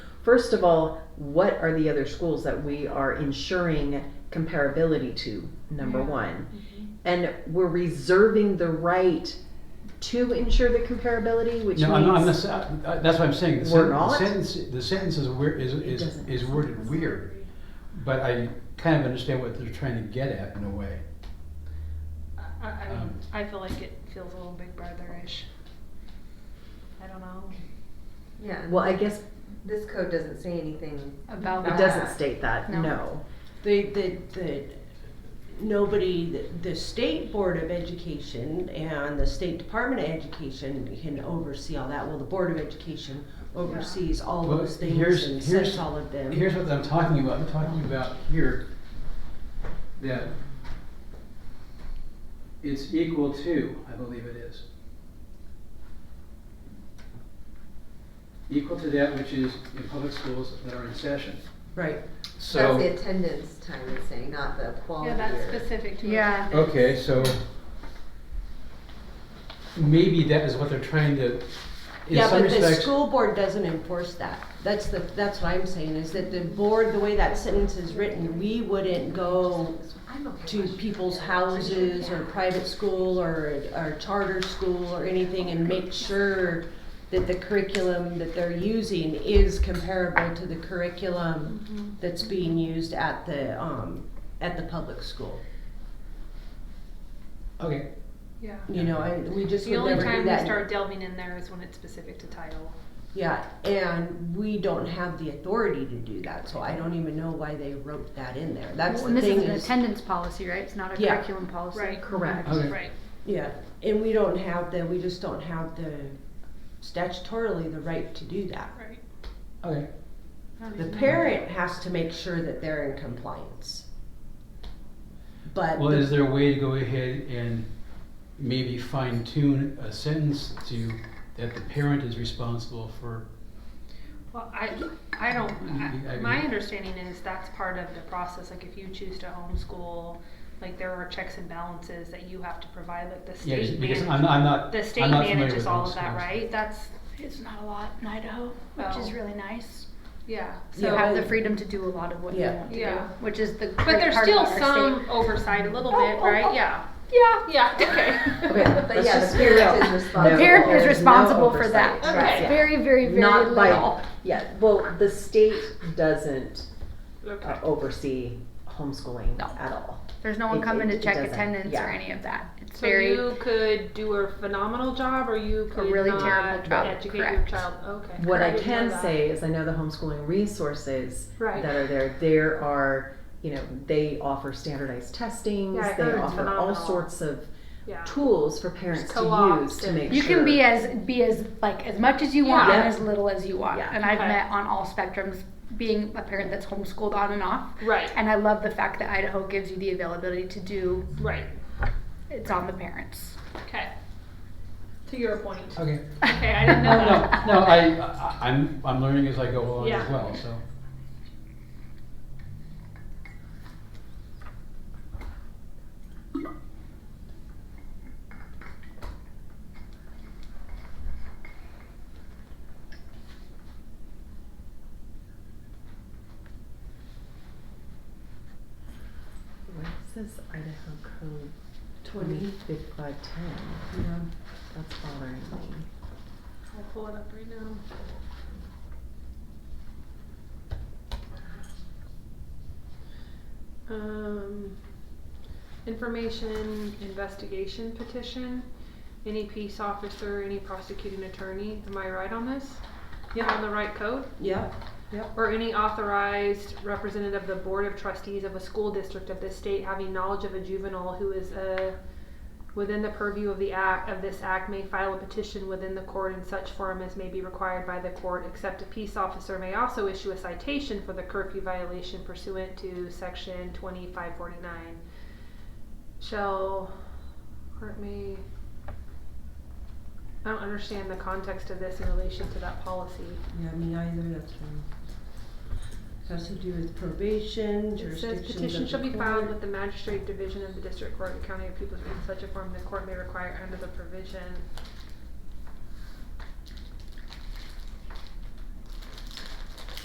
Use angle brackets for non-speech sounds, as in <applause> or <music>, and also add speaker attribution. Speaker 1: First of all, what are the other schools that we are ensuring comparability to? Number
Speaker 2: Yeah.
Speaker 1: one.
Speaker 2: Mm-hmm.
Speaker 1: And we're reserving the right to ensure the comparability, which
Speaker 3: No,
Speaker 1: means
Speaker 3: I'm not, I'm not, sa- I- that's what I'm saying, the
Speaker 1: We're
Speaker 3: sen- the
Speaker 1: not?
Speaker 3: sentence, the sentence is weir, is, is,
Speaker 1: doesn't
Speaker 3: is
Speaker 1: make
Speaker 3: worded weird. But I kind of understand what they're trying to get at in a way.
Speaker 2: I, I,
Speaker 3: Um,
Speaker 2: I feel like it feels a little big brotherish. I don't know
Speaker 4: Yeah.
Speaker 1: well, I guess
Speaker 4: This code doesn't say anything.
Speaker 2: about
Speaker 1: it
Speaker 2: that.
Speaker 1: doesn't state that.
Speaker 2: No.
Speaker 1: No.
Speaker 5: The, the, the, nobody, the- the State Board of Education and the State Department of Education can oversee all that. Well, the Board of Education oversees all
Speaker 3: Well,
Speaker 5: those things
Speaker 3: here's-
Speaker 5: and
Speaker 3: here's-
Speaker 5: sets all of them.
Speaker 3: Here's what I'm talking about, I'm talking about here, that it's equal to, I believe it is. Equal to that which is in public schools that are in session,
Speaker 5: Right,
Speaker 3: so.
Speaker 4: That's the attendance time it's saying, not the quality.
Speaker 2: Yeah, that's
Speaker 4: or-
Speaker 2: specific to.
Speaker 6: Yeah.
Speaker 2: attendance.
Speaker 3: Okay, so maybe that is what they're trying to, in
Speaker 5: yeah,
Speaker 3: some
Speaker 5: but the
Speaker 3: respects.
Speaker 5: school board doesn't enforce that. That's the, that's what I'm saying, is that the board, the way that sentence is written, we wouldn't go
Speaker 4: I'm okay
Speaker 5: to
Speaker 4: with it.
Speaker 5: people's houses or private school or, or charter school or anything and make sure that the curriculum that they're using is comparable to the curriculum
Speaker 2: Mhm.
Speaker 5: that's being used at the, um, at the public school.
Speaker 3: Okay,
Speaker 2: Yeah.
Speaker 5: You know, and we just
Speaker 2: The
Speaker 5: would
Speaker 2: only
Speaker 5: never do
Speaker 2: time we
Speaker 5: that.
Speaker 2: start delving in there is when it's specific to title.
Speaker 5: Yeah, and we don't have the authority to do that, so I don't even know why they wrote that in there. That's
Speaker 6: Well,
Speaker 5: the
Speaker 6: and this
Speaker 5: thing
Speaker 6: is an
Speaker 5: is-
Speaker 6: attendance policy, right? It's not a
Speaker 5: Yeah.
Speaker 6: curriculum policy.
Speaker 2: Right.
Speaker 1: Correct.
Speaker 3: Okay.
Speaker 2: Right.
Speaker 5: Yeah, and we don't have the, we just don't have the statutorily the right to do that.
Speaker 2: Right.
Speaker 3: okay.
Speaker 2: I don't
Speaker 5: The
Speaker 2: even know.
Speaker 5: parent has to make sure that they're in compliance. But,
Speaker 3: Well, is there a way to go ahead and maybe fine tune a sentence to, that the parent is responsible for?
Speaker 2: Well, I, I don't,
Speaker 3: I
Speaker 2: I-
Speaker 3: mean-
Speaker 2: my understanding is that's part of the process, like if you choose to homeschool, like there are checks and balances that you have to provide, like the
Speaker 3: Yeah,
Speaker 2: state
Speaker 3: because
Speaker 2: manages.
Speaker 3: I'm, I'm not,
Speaker 2: The state
Speaker 3: I'm not familiar
Speaker 2: manages
Speaker 3: with
Speaker 2: all
Speaker 3: those
Speaker 2: of that,
Speaker 3: schools.
Speaker 2: right? That's,
Speaker 6: It's not a lot in Idaho,
Speaker 2: which is
Speaker 6: really nice.
Speaker 2: yeah,
Speaker 6: Oh. You
Speaker 2: so,
Speaker 5: Yeah.
Speaker 6: have the freedom to do a lot of what you
Speaker 5: Yeah.
Speaker 6: want to
Speaker 2: Yeah.
Speaker 6: do, which is the great
Speaker 2: but there's
Speaker 6: part
Speaker 2: still
Speaker 6: about our state.
Speaker 2: some oversight a little
Speaker 6: Oh,
Speaker 2: bit,
Speaker 6: oh,
Speaker 2: right?
Speaker 6: oh.
Speaker 2: Yeah. Yeah, yeah, okay.
Speaker 1: Okay,
Speaker 2: <laughs>
Speaker 4: But
Speaker 1: let's
Speaker 4: yeah,
Speaker 1: just
Speaker 4: the
Speaker 1: be
Speaker 4: parent
Speaker 1: real.
Speaker 4: is
Speaker 1: No
Speaker 4: responsible.
Speaker 6: The parent is
Speaker 1: There's no
Speaker 6: responsible for that.
Speaker 1: oversight.
Speaker 2: Right.
Speaker 1: Yeah.
Speaker 6: Very, very, very
Speaker 1: Not by-
Speaker 6: little.
Speaker 1: Yeah, well, the state doesn't
Speaker 2: Okay.
Speaker 1: uh, oversee homeschooling
Speaker 6: No.
Speaker 1: at all.
Speaker 6: There's no one
Speaker 1: It-
Speaker 6: coming
Speaker 1: it-
Speaker 6: to
Speaker 1: it
Speaker 6: check
Speaker 1: doesn't,
Speaker 6: attendance
Speaker 1: yeah.
Speaker 6: or any of that. It's
Speaker 2: So
Speaker 6: very
Speaker 2: you could do a phenomenal job or you could
Speaker 6: really
Speaker 2: not
Speaker 6: terrible job,
Speaker 2: educate your
Speaker 6: correct.
Speaker 2: child, okay.
Speaker 1: What
Speaker 2: I
Speaker 1: I
Speaker 2: didn't know
Speaker 1: can
Speaker 2: that.
Speaker 1: say is I know the homeschooling resources
Speaker 2: Right.
Speaker 1: that are there, there are, you know, they offer standardized testings,
Speaker 2: Yeah, I
Speaker 1: they
Speaker 2: heard it's
Speaker 1: offer all
Speaker 2: phenomenal.
Speaker 1: sorts of
Speaker 2: Yeah.
Speaker 1: tools for parents to
Speaker 2: co-ops
Speaker 1: use to
Speaker 2: and-
Speaker 1: make
Speaker 6: you
Speaker 1: sure.
Speaker 6: can be as be as like as much as you want
Speaker 2: Yeah.
Speaker 6: and as little as you want.
Speaker 1: Yeah.
Speaker 6: And I've
Speaker 2: Okay.
Speaker 6: met on all spectrums being a parent that's homeschooled on and off.
Speaker 2: Right,
Speaker 6: And I love the fact that Idaho gives you the availability to do
Speaker 2: right,
Speaker 6: it's on the parents.
Speaker 2: okay. To your point.
Speaker 3: Okay,
Speaker 2: Okay, I didn't know
Speaker 3: no, no,
Speaker 2: that.
Speaker 3: no, I, I, I'm, I'm learning as I go along as
Speaker 2: Yeah.
Speaker 3: well, so.
Speaker 1: What is this Idaho code
Speaker 5: Twenty.
Speaker 1: twenty-five ten?
Speaker 5: you know,
Speaker 1: That's bothering me.
Speaker 2: I'll pull it up right now. Um, information investigation petition, any peace officer, any prosecuting attorney, am I right on this? Am I On the right code?
Speaker 5: yeah,
Speaker 2: Or any authorized representative of the Board of Trustees of a school district of this state having knowledge of a juvenile who is uh, within the purview of the act, of this act may file a petition within the court in such form as may be required by the court, except a peace officer may also issue a citation for the curfew violation pursuant to section twenty-five forty-nine. Shall, court may, I don't understand the context of this in relation to that policy.
Speaker 5: yeah, me either, that's fine. It has to do with probation,
Speaker 2: It
Speaker 5: jurisdiction
Speaker 2: says petition shall be filed with the magistrate division of the district court of the county of Peoples in such a form the court may require under the provision